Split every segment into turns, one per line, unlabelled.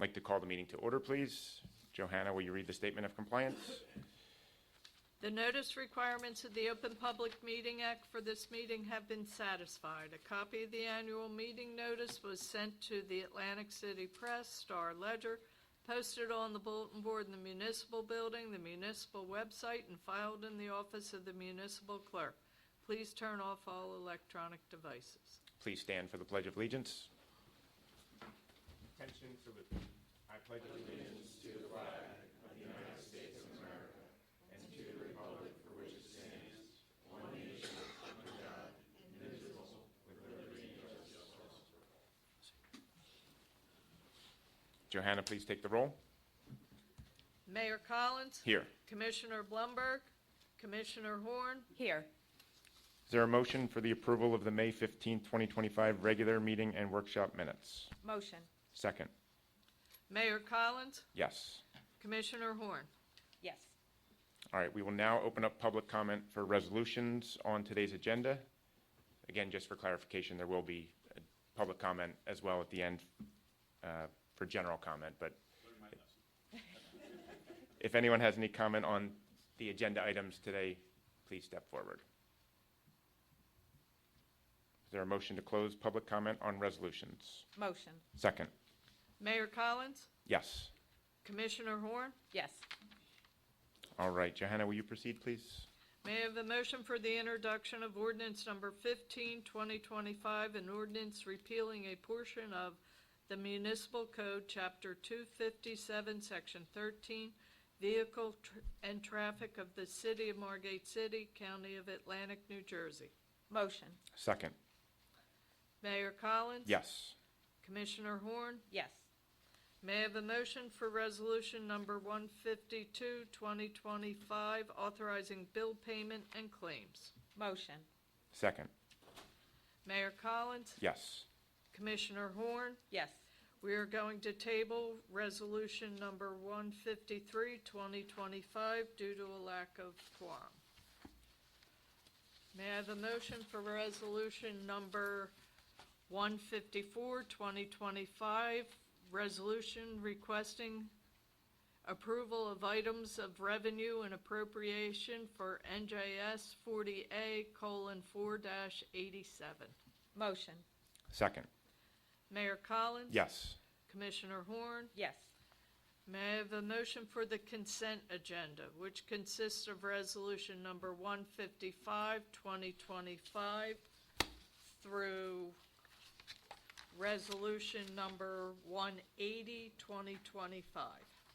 Like to call the meeting to order, please. Johanna, will you read the statement of compliance?
The notice requirements of the Open Public Meeting Act for this meeting have been satisfied. A copy of the annual meeting notice was sent to the Atlantic City Press, Star Ledger, posted on the bulletin board in the municipal building, the municipal website, and filed in the office of the municipal clerk. Please turn off all electronic devices.
Please stand for the Pledge of Allegiance. Attention salute. I pledge allegiance to the flag of the United States of America and to the republic for which it stands, one nation, under God, indivisible, with liberty and justice for all. Johanna, please take the roll.
Mayor Collins?
Here.
Commissioner Blumberg? Commissioner Horn?
Here.
Is there a motion for the approval of the May 15, 2025 regular meeting and workshop minutes?
Motion.
Second.
Mayor Collins?
Yes.
Commissioner Horn?
Yes.
All right, we will now open up public comment for resolutions on today's agenda. Again, just for clarification, there will be uh, public comment as well at the end uh, for general comment, but if anyone has any comment on the agenda items today, please step forward. Is there a motion to close public comment on resolutions?
Motion.
Second,
Mayor Collins?
yes.
Commissioner Horn?
Yes.
All right, Johanna, will you proceed, please?
May I have a motion for the introduction of ordinance number 15, 2025, an ordinance repealing a portion of the municipal code, chapter 257, section 13, vehicle tr- and traffic of the city of Margate City, county of Atlantic, New Jersey.
Motion.
Second,
Mayor Collins?
yes.
Commissioner Horn?
Yes.
May I have a motion for resolution number 152, 2025, authorizing bill payment and claims?
Motion.
Second,
Mayor Collins?
yes.
Commissioner Horn?
Yes.
We are going to table resolution number 153, 2025, due to a lack of quorum. May I have a motion for resolution number 154, 2025, resolution requesting approval of items of revenue and appropriation for NJS 40A: 4-87?
Motion.
Second,
Mayor Collins?
yes.
Commissioner Horn?
Yes.
May I have a motion for the consent agenda, which consists of resolution number 155, 2025, through resolution number 180, 2025?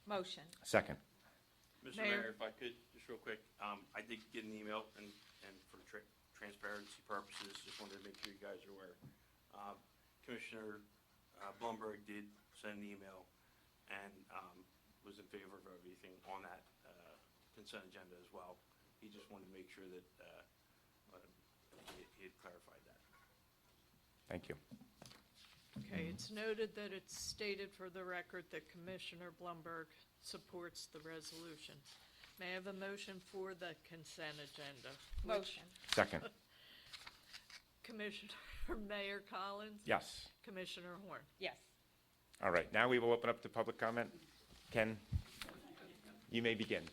Motion.
Second,
Mr.
Mayor.
Mayor, if I could, just real quick, um, I did get an email and, and for tra- transparency purposes, just wanted to make sure you guys are aware. Uh, Commissioner, uh, Blumberg did send an email and, um, was in favor of everything on that, uh, consent agenda as well. He just wanted to make sure that, uh, uh, he, he had clarified that.
thank you.
Okay, it's noted that it's stated for the record that Commissioner Blumberg supports the resolution. May I have a motion for the consent agenda? which
Motion.
Second,
Commissioner, Mayor Collins?
yes.
Commissioner Horn?
Yes.
All right, now we will open up to public comment. Ken, you may begin,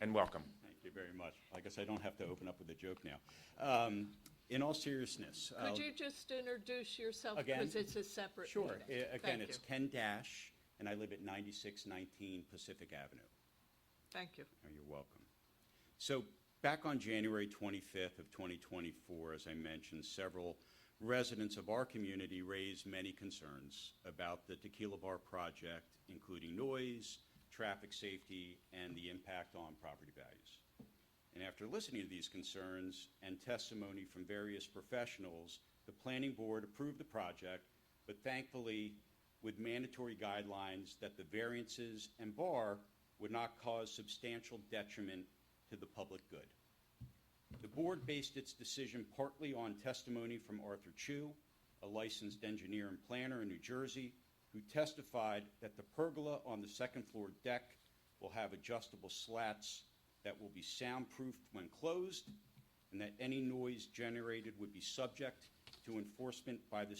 and welcome.
Thank you very much. I guess I don't have to open up with a joke now. Um, In all seriousness. uh,
Could you just introduce yourself?
Again?
Because it's a separate.
Sure.
meeting.
A- Again,
Thank
it's
you.
Ken Dash, and I live at 9619 Pacific Avenue.
Thank you.
Oh, You're welcome. So back on January 25th of 2024, as I mentioned, several residents of our community raised many concerns about the Tequila Bar project, including noise, traffic safety, and the impact on property values. And after listening to these concerns and testimony from various professionals, the planning board approved the project, but thankfully with mandatory guidelines that the variances and bar would not cause substantial detriment to the public good. The board based its decision partly on testimony from Arthur Chu, a licensed engineer and planner in New Jersey, who testified that the pergola on the second floor deck will have adjustable slats that will be soundproofed when closed, and that any noise generated would be subject to enforcement by the